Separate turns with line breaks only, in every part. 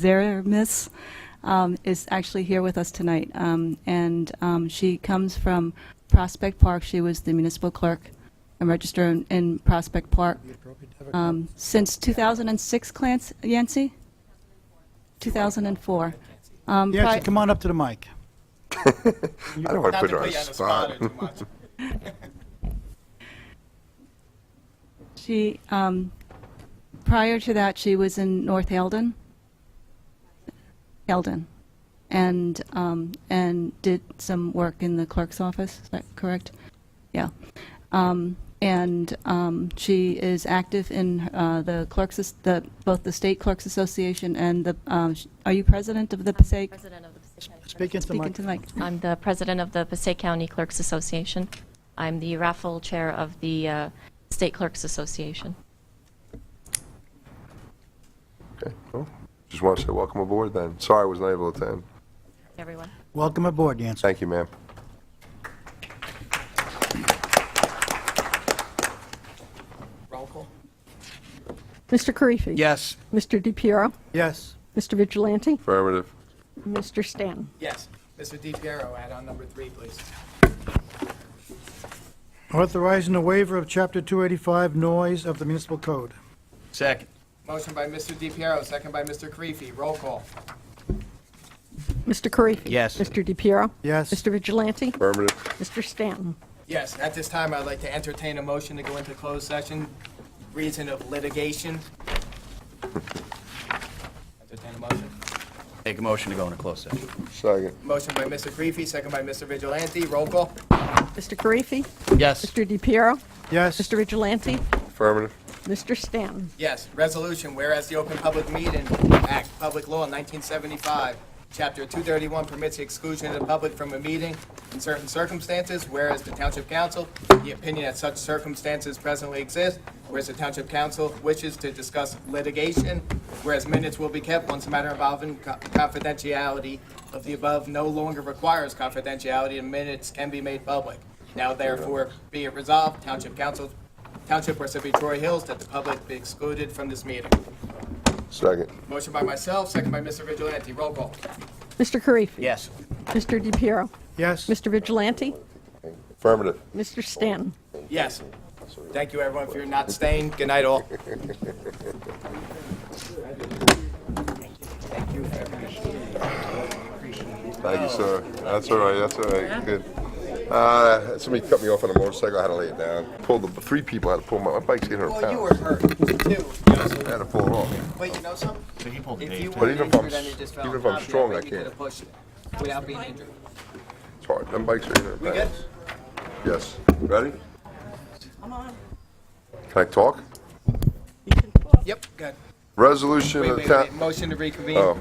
Zeremis um, is actually here with us tonight. Um, And um, she comes from Prospect Park. She was the municipal clerk and register in- in Prospect Park um, since 2006, Clancy, Yancy? 2004. Um,
Yeah,
pri-
come on up to the mic.
I don't want to put
Not
her on
to put
the
you on the
spot.
spot too much.
She, um, prior to that, she was in North Eldon. Eldon. And, um, and did some work in the clerk's office, is that correct? Yeah. Um, and, um, she is active in, uh, the clerks, as- the, both the State Clerks Association and the, um, sh- are you president of the Passaic?
President of the Passaic County Clerks-
Speak into the
Speak
mic.
into the mic.
I'm the president of the Passaic County Clerks Association. I'm the raffle chair of the uh, State Clerks Association.
Okay, well, Just want to say welcome aboard then. Sorry I was not able to attend.
Everyone.
Welcome aboard, Yancy.
Thank you, ma'am.
Roll call?
Mr. Karifi.
Yes.
Mr. DePiero.
Yes,
Mr. Vigilante.
Affirmative.
Mr. Stanton.
Yes. Mr. DiPiero, add-on number three, please.
authorizing the waiver of Chapter 285 noise of the municipal code.
Second.
Motion by Mr. DiPiero, second by Mr. Karifi. Roll call?
Mr. Karifi.
Yes.
Mr. DePiero.
Yes.
Mr. Vigilante.
Affirmative.
Mr. Stanton.
Yes, at this time, I'd like to entertain a motion to go into closed session, reason of litigation. Entertain a motion.
Make a motion to go into closed session.
Second.
Motion by Mr. Karifi, second by Mr. Vigilante. Roll call?
Mr. Karifi.
Yes.
Mr. DePiero.
Yes,
Mr. Vigilante.
Affirmative.
Mr. Stanton.
Yes, resolution, whereas the Open Public Meeting Act, Public Law 1975, Chapter 231 permits the exclusion of the public from a meeting in certain circumstances, whereas the Township Council, the opinion that such circumstances presently exist, whereas the Township Council wishes to discuss litigation, whereas minutes will be kept once a matter involving co- confidentiality of the above no longer requires confidentiality and minutes can be made public. Now therefore be it resolved, Township Council Township or Parsippany Troy Hills that the public be excluded from this meeting.
Second.
Motion by myself, second by Mr. Vigilante. Roll call.
Mr. Karifi.
Yes.
Mr. DePiero.
yes.
Mr. Vigilante.
Affirmative.
Mr. Stanton.
Yes. Thank you, everyone, for your not staying. Good night, all.
Thank you, sir. That's all right, that's all right, good. Uh, Somebody cut me off on a motorcycle, I had to lay it down. Pulled the, three people had to pull my, my bike's 800
Well, you were
pounds.
hurt, too. you know, so-
I had to pull it off.
But you know something? If you
But
weren't
even if I'm
injured and it
s-
just fell
even if
on
I'm
top of you,
strong, I
think you
can't.
could've pushed it Without being injured.
It's hard, them bikes are 800
good?
pounds. Yes, ready? Can I talk?
Yep, good.
Resolution
Wait,
of the
wait,
Uh, town,
wait. Motion to reconvene.
oh,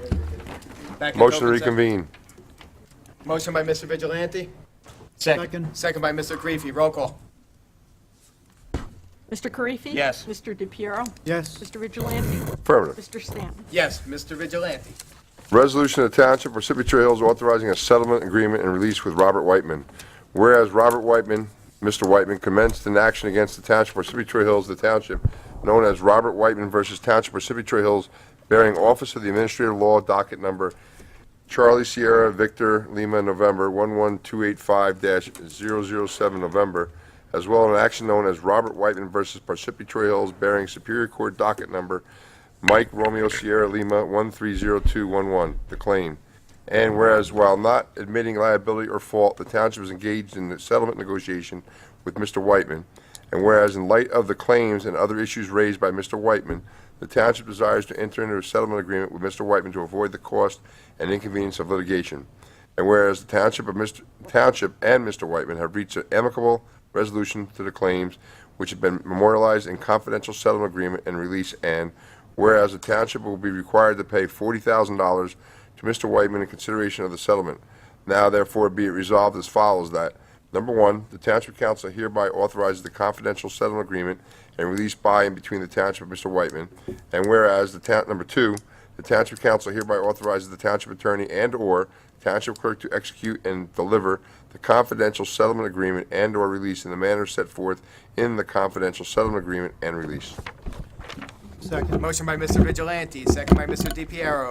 Back
motion
into
to
open session.
reconvene.
Motion by Mr. Vigilante,
Second,
second by Mr. Creepy. Roll call.
Mr. Karifi.
Yes.
Mr. DePiero.
yes.
Mr. Vigilante.
Affirmative.
Mr. Stanton.
Yes, Mr. Vigilante.
Resolution of the Township of Parsippany Troy Hills authorizing a settlement agreement and release with Robert Whiteman. Whereas Robert Whiteman, Mr. Whiteman commenced an action against the Township of Parsippany Troy Hills, the Township, known as Robert Whiteman versus Township of Parsippany Troy Hills, bearing Office of the Administrative Law, docket number Charlie Sierra Victor Lima, November 11285-007, November, as well as an action known as Robert Whiteman versus Parsippany Troy Hills, bearing Superior Court docket number Mike Romeo Sierra Lima, 130211, the claim. And whereas while not admitting liability or fault, the township is engaged in the settlement negotiation with Mr. Whiteman. And whereas in light of the claims and other issues raised by Mr. Whiteman, the township desires to enter into a settlement agreement with Mr. Whiteman to avoid the cost and inconvenience of litigation. And whereas the township of Mr. Township and Mr. Whiteman have reached an amicable resolution to the claims which have been memorialized in confidential settlement agreement and release and whereas the township will be required to pay forty thousand dollars to Mr. Whiteman in consideration of the settlement. Now therefore be it resolved as follows that, number one, the Township Council hereby authorizes the confidential settlement agreement and release by and between the Township and Mr. Whiteman. And whereas the town, number two, the Township Council hereby authorizes the Township Attorney and/or Township Clerk to execute and deliver the confidential settlement agreement and/or release in the manner set forth in the confidential settlement agreement and release.
Second.
Motion by Mr. Vigilante, second by Mr. DiPiero.